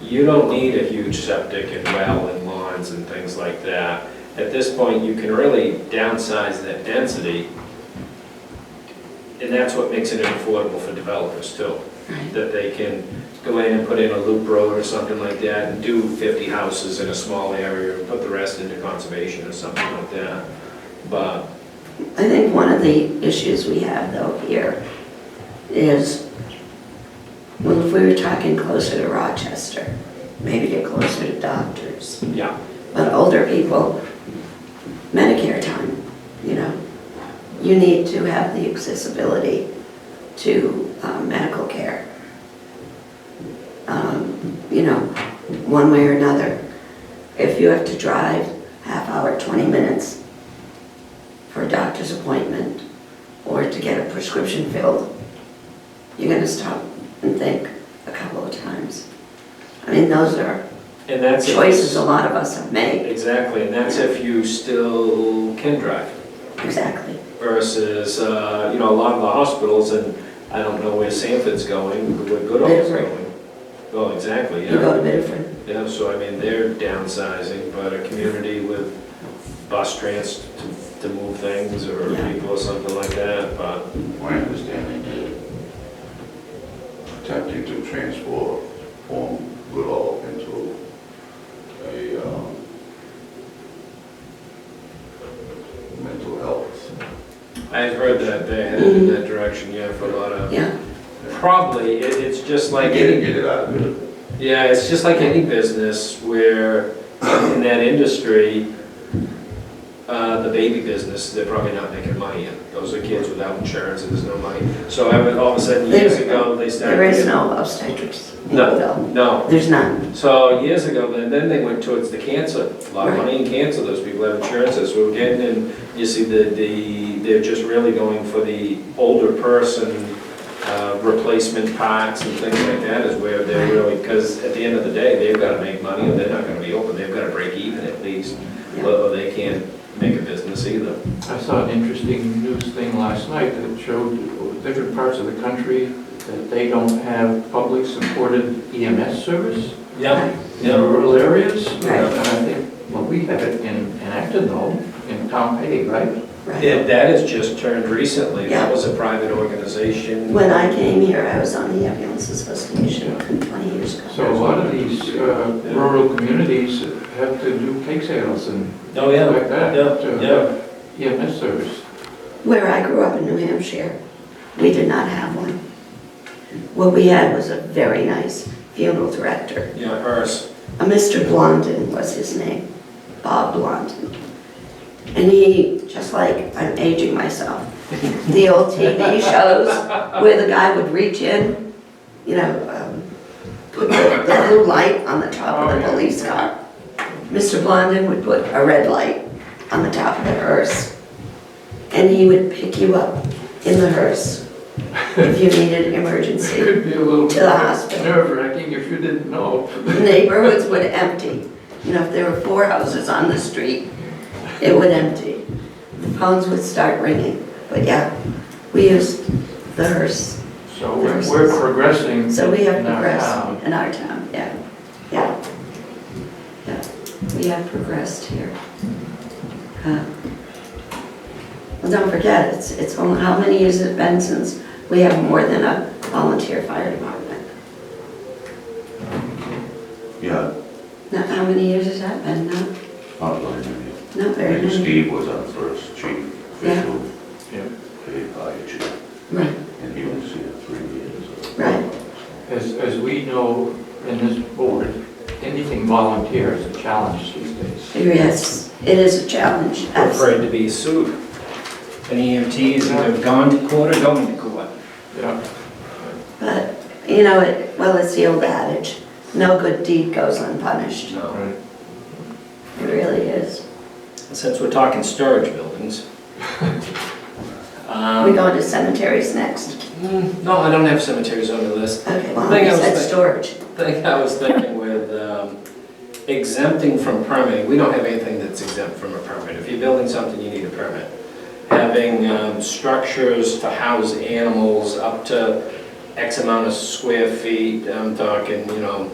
You don't need a huge septic and well and lawns and things like that. At this point, you can really downsize that density, and that's what makes it affordable for developers too. That they can go in and put in a loop road or something like that, and do 50 houses in a small area, and put the rest into conservation or something like that. But I think one of the issues we have though here is, well, if we were talking closer to Rochester, maybe get closer to doctors, Yeah, but older people, Medicare time, you know, you need to have the accessibility to um, medical care. Um, You know, one way or another. If you have to drive half hour, 20 minutes for a doctor's appointment or to get a prescription filled, you're gonna stop and think a couple of times. I mean, those are and that's. if- choices a lot of us have made, Exactly, and that's if you still can drive exactly. versus, uh, you know, a lot of the hospitals, and I don't know where Sanford's going, where Goodall's Bedford. going. Well, exactly, You yeah. go to Bedford, Yeah, so I mean, they're downsizing, but a community with bus trans to- to move things or Yeah. people or something like that, but My understanding is attempting to transform form Goodall into a um, mental health. I've heard that they're headed in that direction, yeah, for a lot of, yeah, probably, it- it's just like Get any it, get it out of it. Yeah, it's just like any business where in that industry, uh, the baby business, they're probably not making money in. Those are kids without insurance and there's no money. So I would, all of a sudden, years ago, they started. there is no obstetrics. in No. Oakville. No. There's none, So years ago, then, then they went towards the cancer. A lot of Right. money in cancer, those people have insurances. We're getting in, you see, the, the, they're just really going for the older person, uh, replacement parts and things like that is where they're really, because at the end of the day, they've gotta make money and they're not gonna be open. They've gotta break even at least, Yeah. or or they can't make a business either. I saw an interesting news thing last night that showed different parts of the country that they don't have public supported EMS service Yeah, in rural areas. Right. And I think, well, we have it in, in Acton though, in Pompey, right? right. That that has just turned recently. Yeah. That was a private organization. When I came here, I was on the ambulance association 20 years ago. So a lot of these uh, rural communities have to do cake sales and Oh, things yeah, like that Yeah, to have EMS service. Where I grew up in New Hampshire, we did not have one. What we had was a very nice funeral director. yeah, hers. A Mr. Blondin was his name, Bob Blondin. And he, just like I'm aging myself, the old TV shows where the guy would reach in, you know, um, put the, the blue light on the top of the police car. Mr. Blondin would put a red light on the top of the hearse. And he would pick you up in the hearse if you needed emergency. Could be a little To the hospital. nerve wracking if you didn't know. neighborhoods would empty. You know, if there were four houses on the street, it would empty. The phones would start ringing. But yeah, we used the hearse. So we're we're progressing So we have in our town. progressed in our town, yeah, yeah. Yeah, we have progressed here. Uh, Well, don't forget, it's, it's only, how many years has it been since we have more than a volunteer fire department? Yeah, Now, how many years has that been now? not really many. Not I very think many. Steve was our first chief official, Yeah. paid by a chief, Right, and he was here three years. right, As, as we know in this board, anything volunteer is a challenge these days. yes, it is a challenge, absolutely. afraid to be sued. And E EMTs either gone to court or going to court. Yeah. But, you know, it, well, it's the old adage, no good deed goes unpunished. No. Right. It really is. Since we're talking storage buildings. Are we um, going to cemeteries next? mm, No, I don't have cemeteries on the list. Okay, well, Thing I you was said thinking- storage. Thing I was thinking with um, exempting from permitting, we don't have anything that's exempt from a permit. If you're building something, you need a permit. Having um, structures to house animals up to X amount of square feet, I'm talking, you know,